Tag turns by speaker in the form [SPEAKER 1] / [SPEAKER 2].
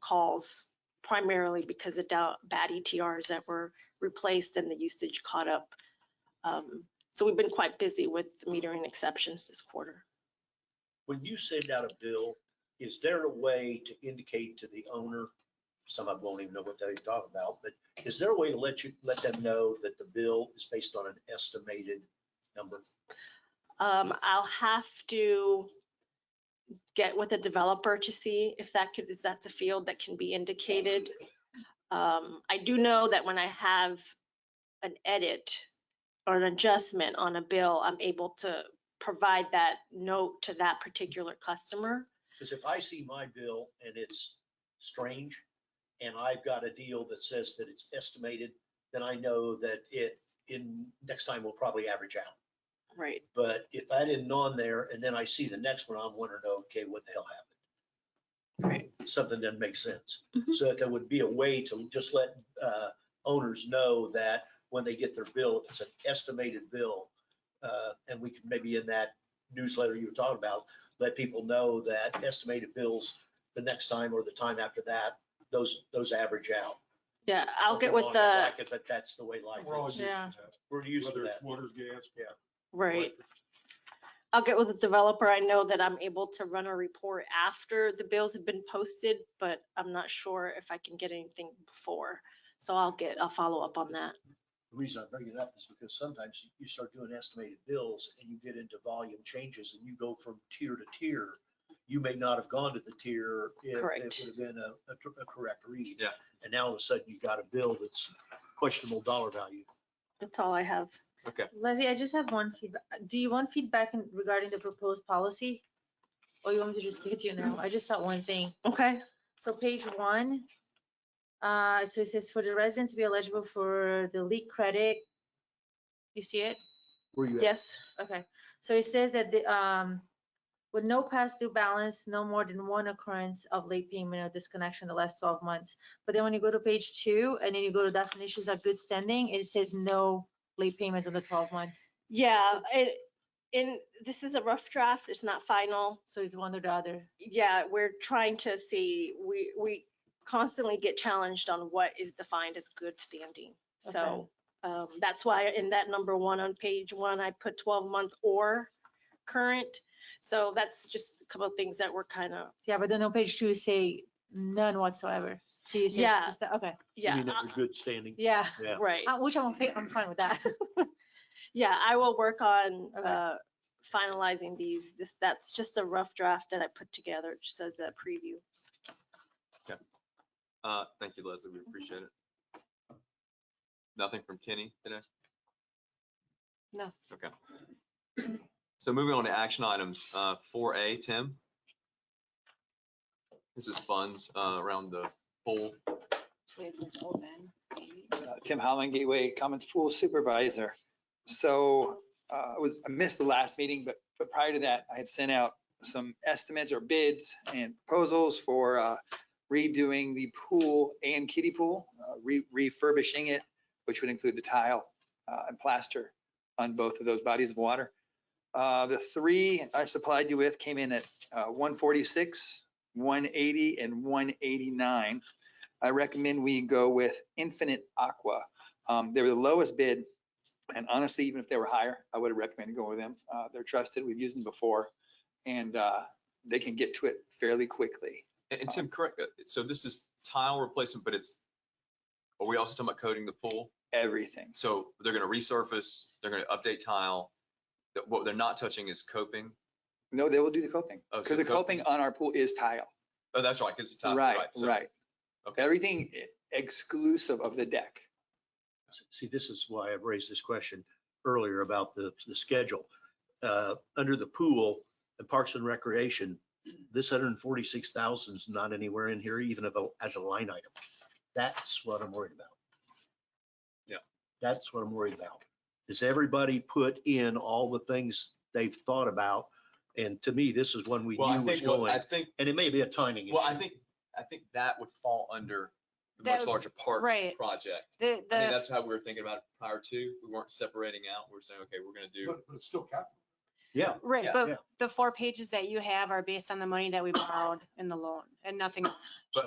[SPEAKER 1] calls primarily because of da- bad ETRs that were replaced and the usage caught up. Um, So we've been quite busy with metering exceptions this quarter.
[SPEAKER 2] When you send out a bill, is there a way to indicate to the owner, some of them won't even know what they're talking about, but is there a way to let you, let them know that the bill is based on an estimated number?
[SPEAKER 1] Um, I'll have to get with a developer to see if that could, is that's a field that can be indicated. Um, I do know that when I have an edit or an adjustment on a bill, I'm able to provide that note to that particular customer.
[SPEAKER 2] Because if I see my bill and it's strange, and I've got a deal that says that it's estimated, then I know that it, in, next time will probably average out.
[SPEAKER 1] Right.
[SPEAKER 2] But if I didn't on there and then I see the next one, I'm wondering, okay, what the hell happened? Something doesn't make sense.
[SPEAKER 1] Mhm.
[SPEAKER 2] So if there would be a way to just let uh, owners know that when they get their bill, it's an estimated bill. uh, And we could maybe in that newsletter you were talking about, let people know that estimated bills the next time or the time after that, those, those average out.
[SPEAKER 1] Yeah, I'll get
[SPEAKER 2] Something
[SPEAKER 1] with
[SPEAKER 2] along
[SPEAKER 1] the.
[SPEAKER 2] that bracket, But that's the way life
[SPEAKER 3] We're all
[SPEAKER 2] is.
[SPEAKER 3] used to
[SPEAKER 1] Yeah.
[SPEAKER 3] that,
[SPEAKER 2] We're used to
[SPEAKER 3] Whether
[SPEAKER 2] that.
[SPEAKER 3] it's water, gas.
[SPEAKER 1] Right.
[SPEAKER 3] electric.
[SPEAKER 1] I'll get with the developer. I know that I'm able to run a report after the bills have been posted, but I'm not sure if I can get anything before. So I'll get, I'll follow up on that.
[SPEAKER 2] The reason I bring it up is because sometimes you- you start doing estimated bills and you get into volume changes and you go from tier to tier. You may not have gone to the tier if
[SPEAKER 1] Correct.
[SPEAKER 2] it would have been a, a tr- a correct read.
[SPEAKER 3] Yeah.
[SPEAKER 2] And now all of a sudden you've got a bill that's questionable dollar value.
[SPEAKER 1] That's all I have.
[SPEAKER 4] Leslie, I just have one feedback. Do you want feedback in- regarding the proposed policy? Or you want me to just give it to you now? I just saw one thing.
[SPEAKER 1] Okay,
[SPEAKER 4] So page one, uh, so it says for the resident to be eligible for the leak credit. You see it?
[SPEAKER 2] Where you at?
[SPEAKER 1] yes,
[SPEAKER 4] Okay, so it says that the, um, with no past due balance, no more than one occurrence of late payment or disconnection in the last twelve months. But then when you go to page two and then you go to definitions of good standing, it says no late payments in the twelve months.
[SPEAKER 1] yeah, it, in, this is a rough draft. It's not final.
[SPEAKER 4] So it's one or the other.
[SPEAKER 1] yeah, we're trying to see, we, we constantly get challenged on what is defined as good standing. So um, that's why in that number one on page one, I put 12 months or current. So that's just a couple of things that were kind of,
[SPEAKER 4] Yeah, but then on page two, say none whatsoever. So you say,
[SPEAKER 1] Yeah.
[SPEAKER 4] it's the- okay,
[SPEAKER 2] You
[SPEAKER 1] yeah,
[SPEAKER 2] mean that's a good standing?
[SPEAKER 4] yeah,
[SPEAKER 1] uh, right.
[SPEAKER 4] Uh, which I'm, fi- I'm fine with that.
[SPEAKER 1] Yeah, I will work on
[SPEAKER 4] Okay.
[SPEAKER 1] uh, finalizing these. This, that's just a rough draft that I put together, just as a preview.
[SPEAKER 5] Uh, thank you, Leslie. We appreciate it. Nothing from Kenny today?
[SPEAKER 4] No.
[SPEAKER 5] Okay. So moving on to action items, uh, four A, Tim. This is funds, uh, around the pool.
[SPEAKER 6] Uh, Tim Holland, Gateway Commons Pool Supervisor. So uh, I was, I missed the last meeting, but, but prior to that, I had sent out some estimates or bids and proposals for uh, redoing the pool and kiddie pool, uh, re- refurbishing it, which would include the tile uh, and plaster on both of those bodies of water. Uh, The three I supplied you with came in at uh, 146, 180, and 189. I recommend we go with Infinite Aqua. Um, they were the lowest bid, and honestly, even if they were higher, I would have recommended going with them. Uh, they're trusted, we've used them before, and, uh, they can get to it fairly quickly.
[SPEAKER 5] And, and Tim, correct, uh, so this is tile replacement, but it's, are we also talking about coating the pool?
[SPEAKER 6] Everything.
[SPEAKER 5] So they're gonna resurface, they're gonna update tile. That- What they're not touching is coping.
[SPEAKER 6] No, they will do the coping,
[SPEAKER 5] Oh, so
[SPEAKER 6] because the coping on our pool is tile.
[SPEAKER 5] Oh, that's right, because it's tile,
[SPEAKER 6] Right,
[SPEAKER 5] right? so-
[SPEAKER 6] right.
[SPEAKER 5] okay.
[SPEAKER 6] Everything e- exclusive of the deck.
[SPEAKER 2] See, this is why I've raised this question earlier about the, the schedule. Uh, Under the pool, the Parks and Recreation, this hundred and forty-six thousand is not anywhere in here, even if, a- as a line item. That's what I'm worried about.
[SPEAKER 5] Yeah.
[SPEAKER 2] That's what I'm worried about. Is everybody put in all the things they've thought about? And to me, this is one we
[SPEAKER 5] Well, I
[SPEAKER 2] knew was
[SPEAKER 5] think, what- I
[SPEAKER 2] going,
[SPEAKER 5] think
[SPEAKER 2] and it may be a timing issue.
[SPEAKER 5] Well, I think, I think that would fall under the much
[SPEAKER 4] That-
[SPEAKER 5] larger park
[SPEAKER 4] right.
[SPEAKER 5] project.
[SPEAKER 4] The,
[SPEAKER 5] I mean,
[SPEAKER 4] the,
[SPEAKER 5] that's how we were thinking about it prior to. We weren't separating out. We We're saying, okay, we're gonna do,
[SPEAKER 3] But but it's still capital.
[SPEAKER 2] Yeah,
[SPEAKER 7] Right,
[SPEAKER 5] Yeah.
[SPEAKER 2] Yeah.
[SPEAKER 7] but the four pages that you have are based on the money that we borrowed in the loan and nothing